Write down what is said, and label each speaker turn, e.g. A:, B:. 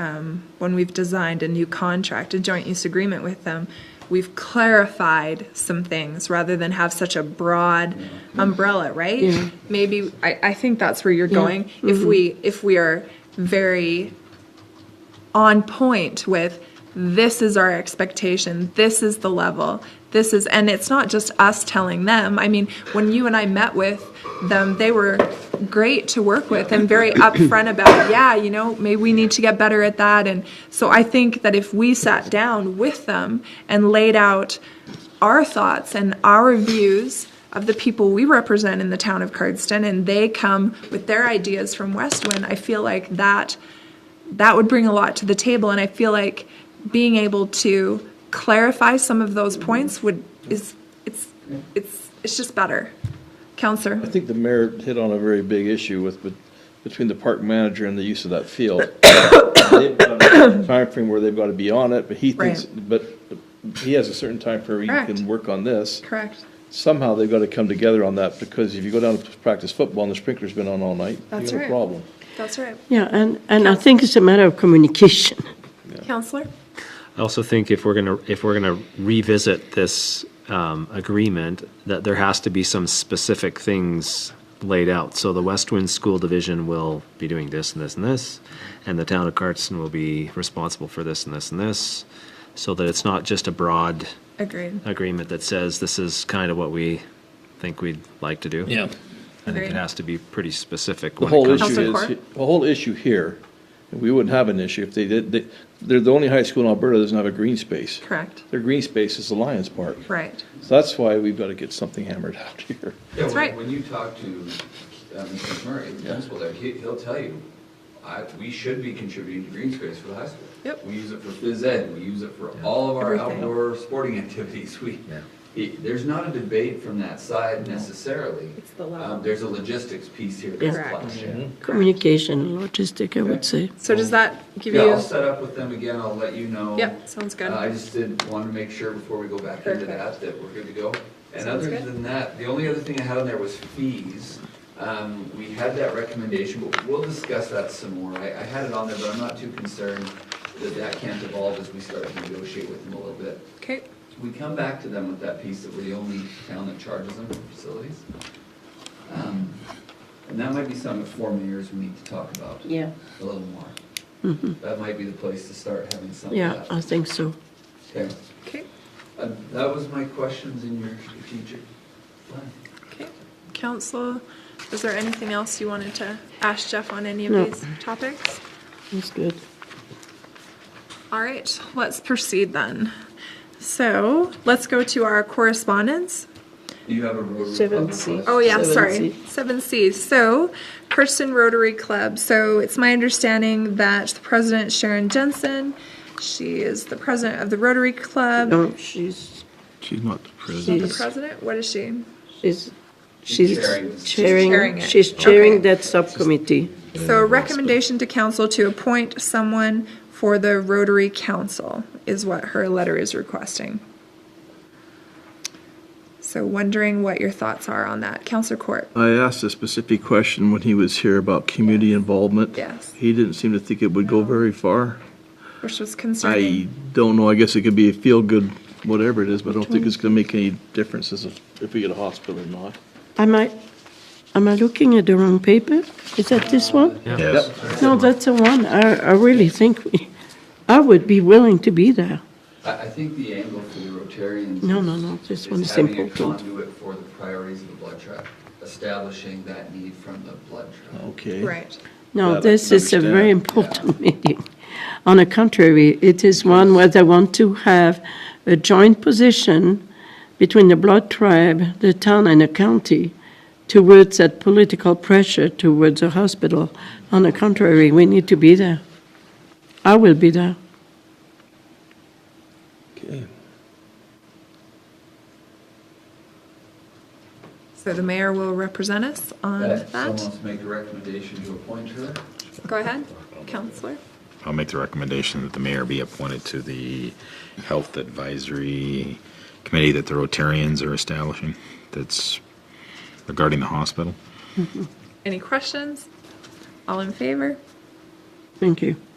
A: um, when we've designed a new contract, a joint use agreement with them, we've clarified some things rather than have such a broad umbrella, right? Maybe, I, I think that's where you're going. If we, if we are very on point with this is our expectation, this is the level, this is, and it's not just us telling them. I mean, when you and I met with them, they were great to work with and very upfront about, yeah, you know, maybe we need to get better at that. And so I think that if we sat down with them and laid out our thoughts and our views of the people we represent in the town of Cardston, and they come with their ideas from Westwind, I feel like that that would bring a lot to the table and i feel like being able to clarify some of those points would is it's it's it's just better counselor
B: I think the mayor hit on a very big issue with, bet- between the park manager and the use of that field. They've got a Timeframe where they've got to be on it, but he thinks,
A: Right.
B: but but he has a certain timeframe where you
A: Correct.
B: can work on this.
A: correct
B: Somehow they've got to come together on that, because if you go down to practice football and the sprinkler's been on all night, you
A: That's
B: have a
A: right.
B: problem.
A: that's right
C: Yeah, and, and I think it's a matter of communication.
A: counselor
D: I also think if we're gonna, if we're gonna revisit this um, agreement, that there has to be some specific things laid out. So the West Wind School Division will be doing this and this and this, and the town of Cardston will be responsible for this and this and this, so that it's not just a broad
A: agreed
D: agreement that says this is kind of what we think we'd like to do. Yeah. I think
A: Agreed.
D: it has to be pretty specific.
B: The
D: when it
B: whole
D: comes-
B: issue
A: Counselor
B: is,
A: Court?
B: the whole issue here, and we wouldn't have an issue if they did, they, they're the only high school in Alberta that doesn't have a green space.
A: correct
B: Their green space is the Lions Park.
A: right
B: So that's why we've got to get something hammered out here.
E: Yeah,
A: That's
E: when-
A: right.
E: When you talk to uh, Mr. Murray, the principal there, he, he'll tell you, I, we should be contributing to green space for the high school.
A: Yep.
E: We use it for phys ed, we use it for all of our
A: Everything.
E: outdoor sporting activities, we, it- there's not a debate from that side necessarily.
A: It's the
E: Um,
A: level.
E: There's a logistics piece here
C: Yeah.
E: that's
A: Correct.
E: clashing.
C: Communication and logistic, I would say.
A: so does that give
E: Yeah,
A: you
E: I'll set up with them again, I'll let you know.
A: Yep, sounds good.
E: Uh, I just did want to make sure before we go back into
A: Perfect.
E: that, that we're good to go. And
A: Sounds
E: other
A: good.
E: than that, the only other thing I had on there was fees. Um, we had that recommendation, but we'll discuss that some more. I, I had it on there, but I'm not too concerned that that can't evolve as we start to negotiate with them a little bit.
A: okay
E: We come back to them with that piece that we're the only town that charges them for facilities. Um, And that might be something that four mayors we need to talk about
C: Yeah.
E: a little more. That might be the place to start having some of
C: Mm-hmm. Yeah, I
E: that.
C: think so.
E: Okay.
A: okay
E: Uh, That was my questions in your strategic plan.
A: okay council is there anything else you wanted to ask jeff on any of
C: No.
A: these topics
C: That's good.
A: All right, let's proceed then. So let's go to our correspondence.
E: Do you have a road
C: Seven
E: club
C: C.
E: request?
A: Oh, yeah,
C: Seven
A: sorry.
C: C.
A: Seven Cs. So Kirsten Rotary Club. So it's my understanding that the president Sharon Jensen, she is the president of the Rotary Club.
C: No, Um, she's,
B: She's not the
A: Not the
C: she's,
A: president, what is she?
C: she's,
E: chairing.
C: she's
A: chairing
C: chairing,
A: it.
C: she's chairing that subcommittee.
A: So a recommendation to council to appoint someone for the Rotary Council is what her letter is requesting. So wondering what your thoughts are on that. Counselor Court.
B: I asked a specific question when he was here about community involvement.
A: Yes.
B: He didn't seem to think it would go very far.
A: which was
B: I
A: concerning.
B: don't know, I guess it could be a feel-good, whatever it is, but I don't think it's gonna make any difference as if, if we get a hospital or not.
C: Am I, am I looking at the wrong paper? Is that this one?
D: Uh,
C: No, that's the one. I, I really think, we- I would be willing to be there.
E: I, I think the angle for the Rotarians.
C: No,
E: is-
C: no, no, this
E: is
C: one's
E: Having a
C: important.
E: conduit for the priorities of the blood tract, establishing that need from the blood tract.
B: Okay.
A: Right.
B: That I
C: No,
B: can
C: this is a very
B: understand.
C: important meeting. On the contrary, it is one where they want to have a joint position between the Blood Tribe, the town, and the county towards that political pressure towards the hospital. On the contrary, we need to be there. I will be there.
B: Okay.
A: So the mayor will represent us
C: Oh.
A: on
E: That, someone
A: that.
E: wants to make the recommendation to appoint her?
A: Go ahead, counselor.
F: I'll make the recommendation that the mayor be appointed to the Health Advisory Committee that the Rotarians are establishing that's regarding the hospital.
A: Any questions? All in favor?
C: Thank you.